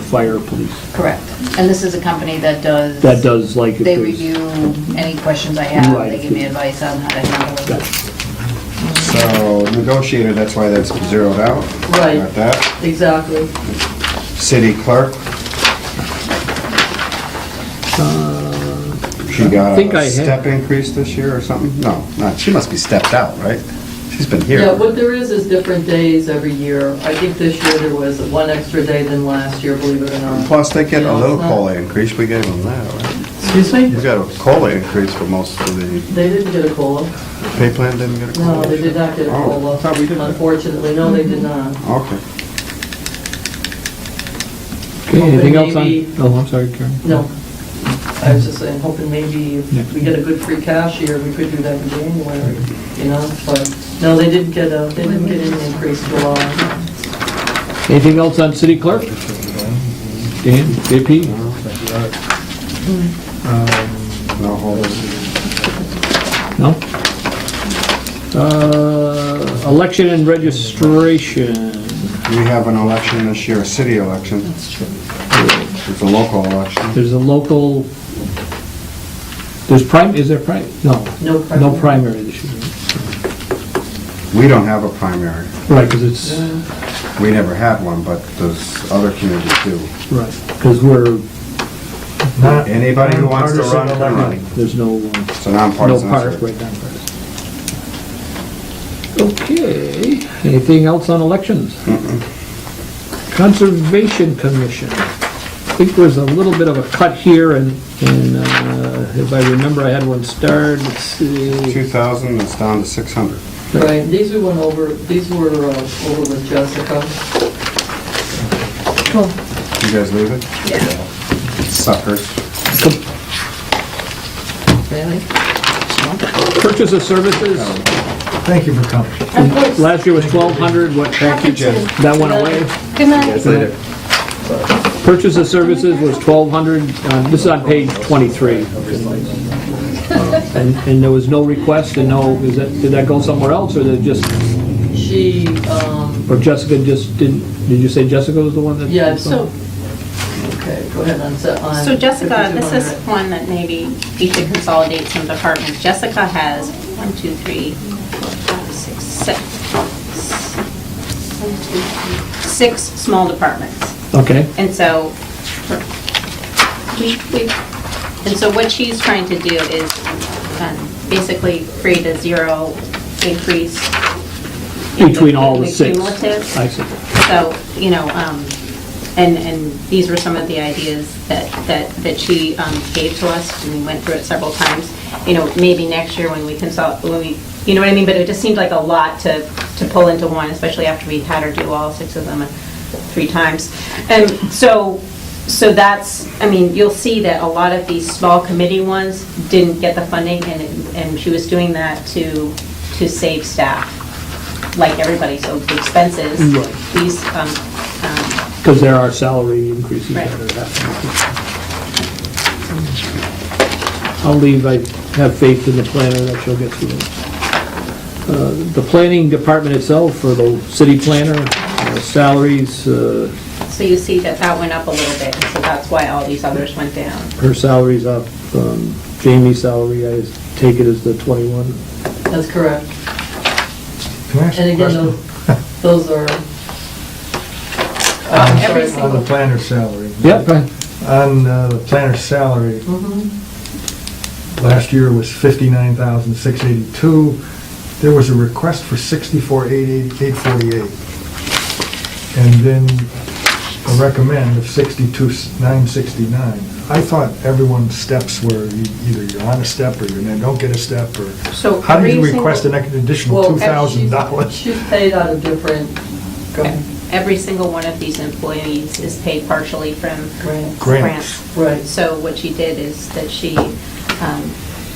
fire, police. Correct. And this is a company that does... That does like if They there's- review any questions I have, Right. they give me advice on how to handle it. Gotcha. So negotiator, that's why that's zeroed out. Right. Got that. Exactly. City clerk, she got think I a had- step increase this year or something? No, not, she must be stepped out, right? She's been Yeah, here. what there is is different days every year. I think this year there was one extra day than last year, believe it or not. Plus, they get You a know, little it's not- COLA increase, we gave them that, right? Excuse me? We got a COLA increase for most of the, They didn't get a COLA. pay plan didn't get a COLA? No, they did not get a Oh, COLA. I thought we did that. Unfortunately, no, they did not. Okay. Okay, anything else on, Maybe- oh, I'm sorry, Karen. No. I was just saying, hoping maybe if we get a good free cash year, we could do that in January, you know, but, no, they didn't get a, they didn't get an increase July. Anything else on city clerk? Dan, JP? No, hold on. No? Uh, election and registration. We have an election this year, a city election. That's true. It's a local election. There's a local, there's prime, is there prime? No, No no primary. primary this year. We don't have a primary. Right, because it's, We never had one, but those other communities do. right, because we're, Anybody who wants to run, can run. there's no, uh, It's a no nonpartisan park, effort. right, nonpartisan. Okay, anything else on elections? Conservation Commission. I think there's a little bit of a cut here, and, and uh, if I remember, I had one starred, let's see. 2,000, it's down to 600. Right, these we went over, these were uh, over with Jessica. You guys leave it? Suckers. Really? Purchase of services, Thank you for coming. last year was 1,200, what, that Jim. went away? Good night. Later. Purchase of services was 1,200, uh, this is on page 23. And, and there was no request and no, is that, did that go somewhere else, or did it just, She, um, or Jessica just didn't, did you say Jessica was the one that? yeah, so, okay, go ahead on. se- Um, on So Jessica, this is 5200. one that maybe we should consolidate some departments. Jessica has one, two, three, four, five, six, six. One, two, three, Six small departments. Okay, And so, we, we, and so what she's trying to do is um, basically create a zero increase. in between all the six. Cumulative. I see. So, you know, um, and, and these were some of the ideas that, that, that she um, gave to us, and we went through it several times. You know, maybe next year when we consult, when we, you know what I mean, but it just seemed like a lot to, to pull into one, especially after we had her do all six of them uh, three times. And so, so that's, I mean, you'll see that a lot of these small committee ones didn't get the funding, and, it- and she was doing that to, to save staff like everybody, so the expenses, Right. these, um, um, Because there are salary increases that Right. are happening. I'll leave, I have faith in the planner that she'll get through it. Uh, The planning department itself, or the city planner, uh, salaries, uh, so you see that that went up a little bit, and so that's why all these others went down. her salary's up, um, Jamie's salary, I take it as the 21. That's correct. Can I ask And a again, question? those- those are, Uh, I'm every sorry, On single- the planner's salary. Yep, I- On uh, the planner's salary, Mm-hmm. last year was 59,682. There was a request for 64,848. And then a recommend of 62,969. I thought everyone's steps were you- either you're on a step or you don't get a step or... So How do you every request an single- additional well, actually, $2,000? she's paid out of different, go ahead. Every single one of these employees is paid partially from Grants. Grants. grants. Right. So what she did is that she um,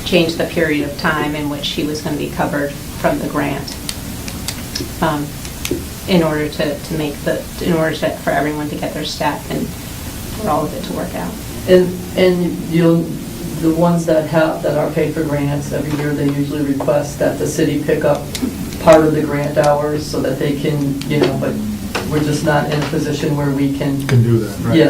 changed the period of time in which she was going to be covered from the grant um, in order to, to make the, in order to, for everyone to get their step and for all of it to work out. And, and you'll, the ones that have, that are paid for grants, every year they usually request that the city pick up part of the grant hours so that they can, you know, but we're just not in a position where we can, Can do that, right? yeah,